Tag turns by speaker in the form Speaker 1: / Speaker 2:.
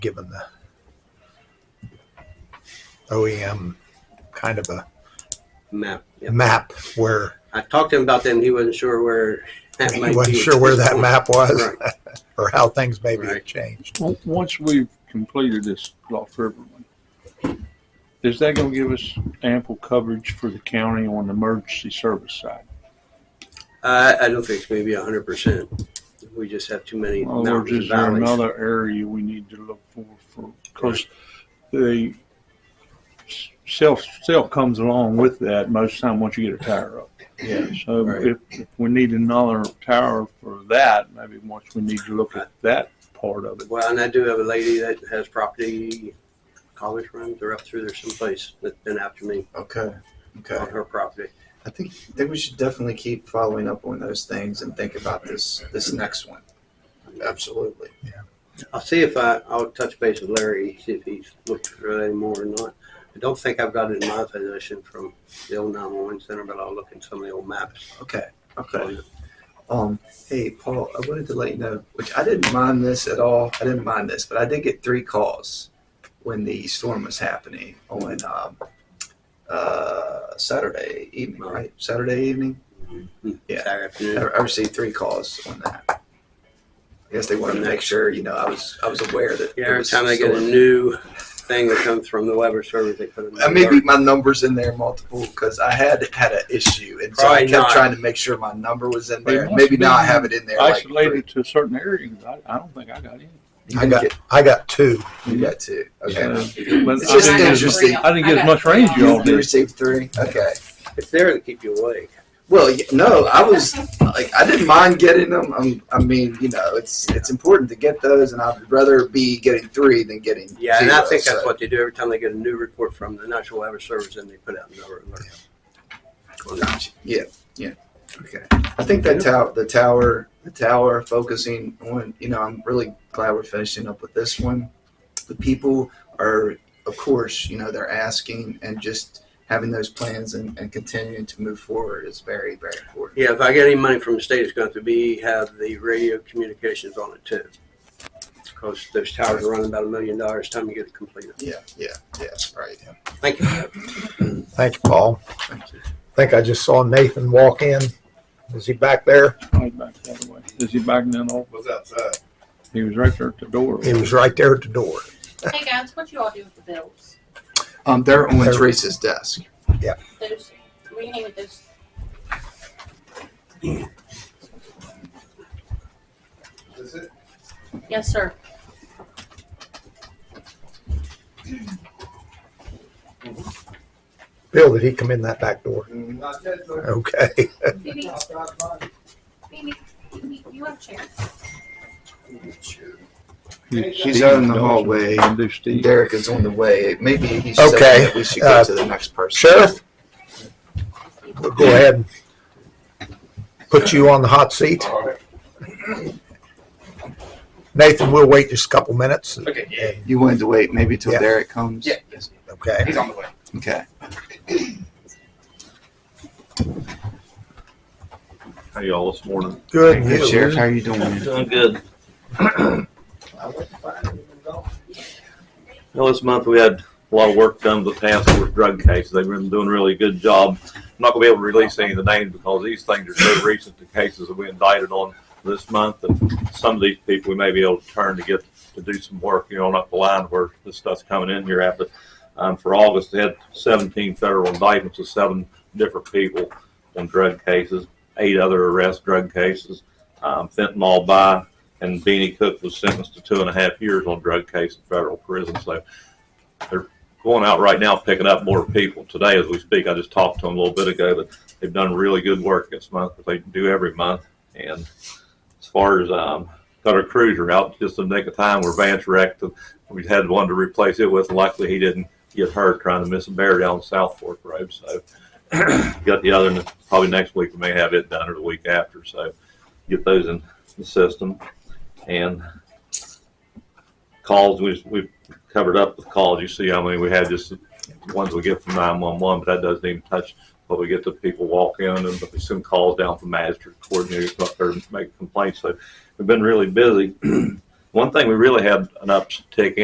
Speaker 1: given the OEM E kind of a
Speaker 2: map. Yep.
Speaker 1: map where
Speaker 2: I talked to him about that, and he wasn't sure where that
Speaker 1: he
Speaker 2: might
Speaker 1: wasn't
Speaker 2: be.
Speaker 1: sure where that map was
Speaker 2: Right.
Speaker 1: or how things maybe have
Speaker 2: Right.
Speaker 1: changed.
Speaker 3: O- Once we've completed this Lost River one, is that gonna give us ample coverage for the county on the emergency service side?
Speaker 2: Uh, I, I don't think it's going to be hundred percent. We just have too many
Speaker 3: In other
Speaker 2: mountains
Speaker 3: words,
Speaker 2: and
Speaker 3: is there
Speaker 2: valleys.
Speaker 3: another area we need to look for, for, cause the self, self comes along with that most time once you get a tower up.
Speaker 1: Yeah.
Speaker 3: So
Speaker 2: Right.
Speaker 3: if, if we need another tower for that, maybe once we need to look at that part of it.
Speaker 2: Well, and I do have a lady that has property, college rooms, they're up through there someplace that's been after me
Speaker 4: Okay. Okay.
Speaker 2: on her property.
Speaker 4: I think I think we should definitely keep following up on those things and think about this this next one. Absolutely.
Speaker 2: I'll see if I, I'll touch base with Larry, see if he's looked for that anymore or not. I don't think I've got it in my possession from the old nine-one-one center, but I'll look in some of the old maps.
Speaker 4: Okay. Okay. Um. Hey, Paul. I wanted to let you know, which I didn't mind this at all. I didn't mind this, but I did get three calls when the storm was happening on um, uh, Saturday evening, right? Saturday evening. Yeah.
Speaker 2: Saturday afternoon.
Speaker 4: I, I received three calls on that. I guess they wanted to make sure, you know, I was I was aware that.
Speaker 2: Yeah,
Speaker 4: there
Speaker 2: every
Speaker 4: was
Speaker 2: time they get a
Speaker 4: storm.
Speaker 2: new thing that comes from the Weber service, they put
Speaker 4: Uh,
Speaker 2: them.
Speaker 4: maybe my numbers in there multiple because I had had an issue, and so I
Speaker 2: Probably
Speaker 4: kept
Speaker 2: not.
Speaker 4: trying to make sure my number was in
Speaker 3: They
Speaker 4: there.
Speaker 3: must
Speaker 4: Maybe now I
Speaker 3: be
Speaker 4: have it in there. like three.
Speaker 3: Isolated to a certain area, 'cause I, I don't think I got in.
Speaker 4: You
Speaker 1: I
Speaker 4: didn't
Speaker 1: got
Speaker 4: get-
Speaker 1: I got two.
Speaker 4: you got two. Okay,
Speaker 3: But
Speaker 4: It's
Speaker 3: I
Speaker 4: just
Speaker 3: didn't get-
Speaker 4: interesting.
Speaker 3: I didn't get as much range
Speaker 4: you,
Speaker 3: y'all
Speaker 4: you
Speaker 3: did.
Speaker 4: received three. Okay.
Speaker 2: It's there to keep you awake.
Speaker 4: Well, y- no, I was like, I didn't mind getting them. i I mean, you know, it's it's important to get those, and I'd rather be getting three than getting.
Speaker 2: Yeah, and I
Speaker 4: zero,
Speaker 2: think that's
Speaker 4: so-
Speaker 2: what they do every time they get a new report from the National Weather Service, and they put out another alert.
Speaker 4: Yeah, yeah. Okay. I think that tower, the tower, the tower focusing on, you know, I'm really glad we're finishing up with this one. The people are, of course, you know, they're asking and just having those plans and, and continuing to move forward is very, very important.
Speaker 2: Yeah, if I get any money from the state, it's going to be have the radio communications on it too. Because those towers are running about a million dollars time you get it completed.
Speaker 4: Yeah, yeah, yeah, right.
Speaker 2: Thank you.
Speaker 1: Thank you, Paul.
Speaker 4: Thank you.
Speaker 1: I think I just saw Nathan walk in. Is he back there?
Speaker 3: I was back the other way. Is he backing in off?
Speaker 5: was outside.
Speaker 3: He was right there at the door.
Speaker 1: He was right there at the door.
Speaker 6: Hey guys, what you all do with the bills?
Speaker 4: Um, they're on
Speaker 1: They're-
Speaker 4: Teresa's desk.
Speaker 6: Those, we can with those.
Speaker 5: Is it?
Speaker 6: Yes, sir.
Speaker 1: Bill, did he come in that back door?
Speaker 5: Not yet, though.
Speaker 1: Okay.
Speaker 6: Phoebe,
Speaker 5: Outside, fine.
Speaker 6: Phoebe, Phoebe, you have a chair.
Speaker 4: She's out in the hallway.
Speaker 3: I do Steve.
Speaker 4: Derek is on the way. Maybe he's saying
Speaker 1: Okay,
Speaker 4: that we should go
Speaker 1: uh,
Speaker 4: to the next person.
Speaker 1: Sheriff, we'll go ahead and put you on the hot seat.
Speaker 5: All right.
Speaker 1: Nathan, we'll wait just a couple minutes.
Speaker 7: Okay, yeah,
Speaker 4: You wanted to wait maybe till
Speaker 1: Yeah.
Speaker 4: Derek comes?
Speaker 7: yeah, yes,
Speaker 1: Okay.
Speaker 7: he's on the way.
Speaker 4: Okay.
Speaker 8: How y'all this morning?
Speaker 1: Good.
Speaker 4: Hey,
Speaker 1: news.
Speaker 4: Sheriff, how are you doing?
Speaker 8: Doing good.
Speaker 5: I went to find him and gone.
Speaker 8: Well, this month we had a lot of work done with the task force drug cases. They've been doing a really good job. I'm not gonna be able to release any of the names because these things are so recent, the cases that we indicted on this month. And some of these people we may be able to turn to get, to do some work, you know, on up the line where this stuff's coming in here after. Um, for August, they had seventeen federal indictments of seven different people on drug cases, eight other arrest drug cases. Um, fentanyl by and Beanie Cook was sentenced to two and a half years on drug case in federal prison. So they're going out right now picking up more people today as we speak. I just talked to them a little bit ago that they've done really good work this month, but they do every month. And as far as um, Cutter Cruiser out just in the nick of time where Vance wrecked, we had one to replace it with. and Luckily, he didn't get hurt trying to miss a bear down South Fork Road. So got the other, and probably next week we may have it done or the week after. So get those in the system and calls, we, we've covered up with calls, you see how many we had, just the ones we get from nine-one-one, but that doesn't even touch what we get the people walk in, and but we send calls down from magistrate coordinators up there and make complaints, so we've been really busy. One thing we really had an uptick in.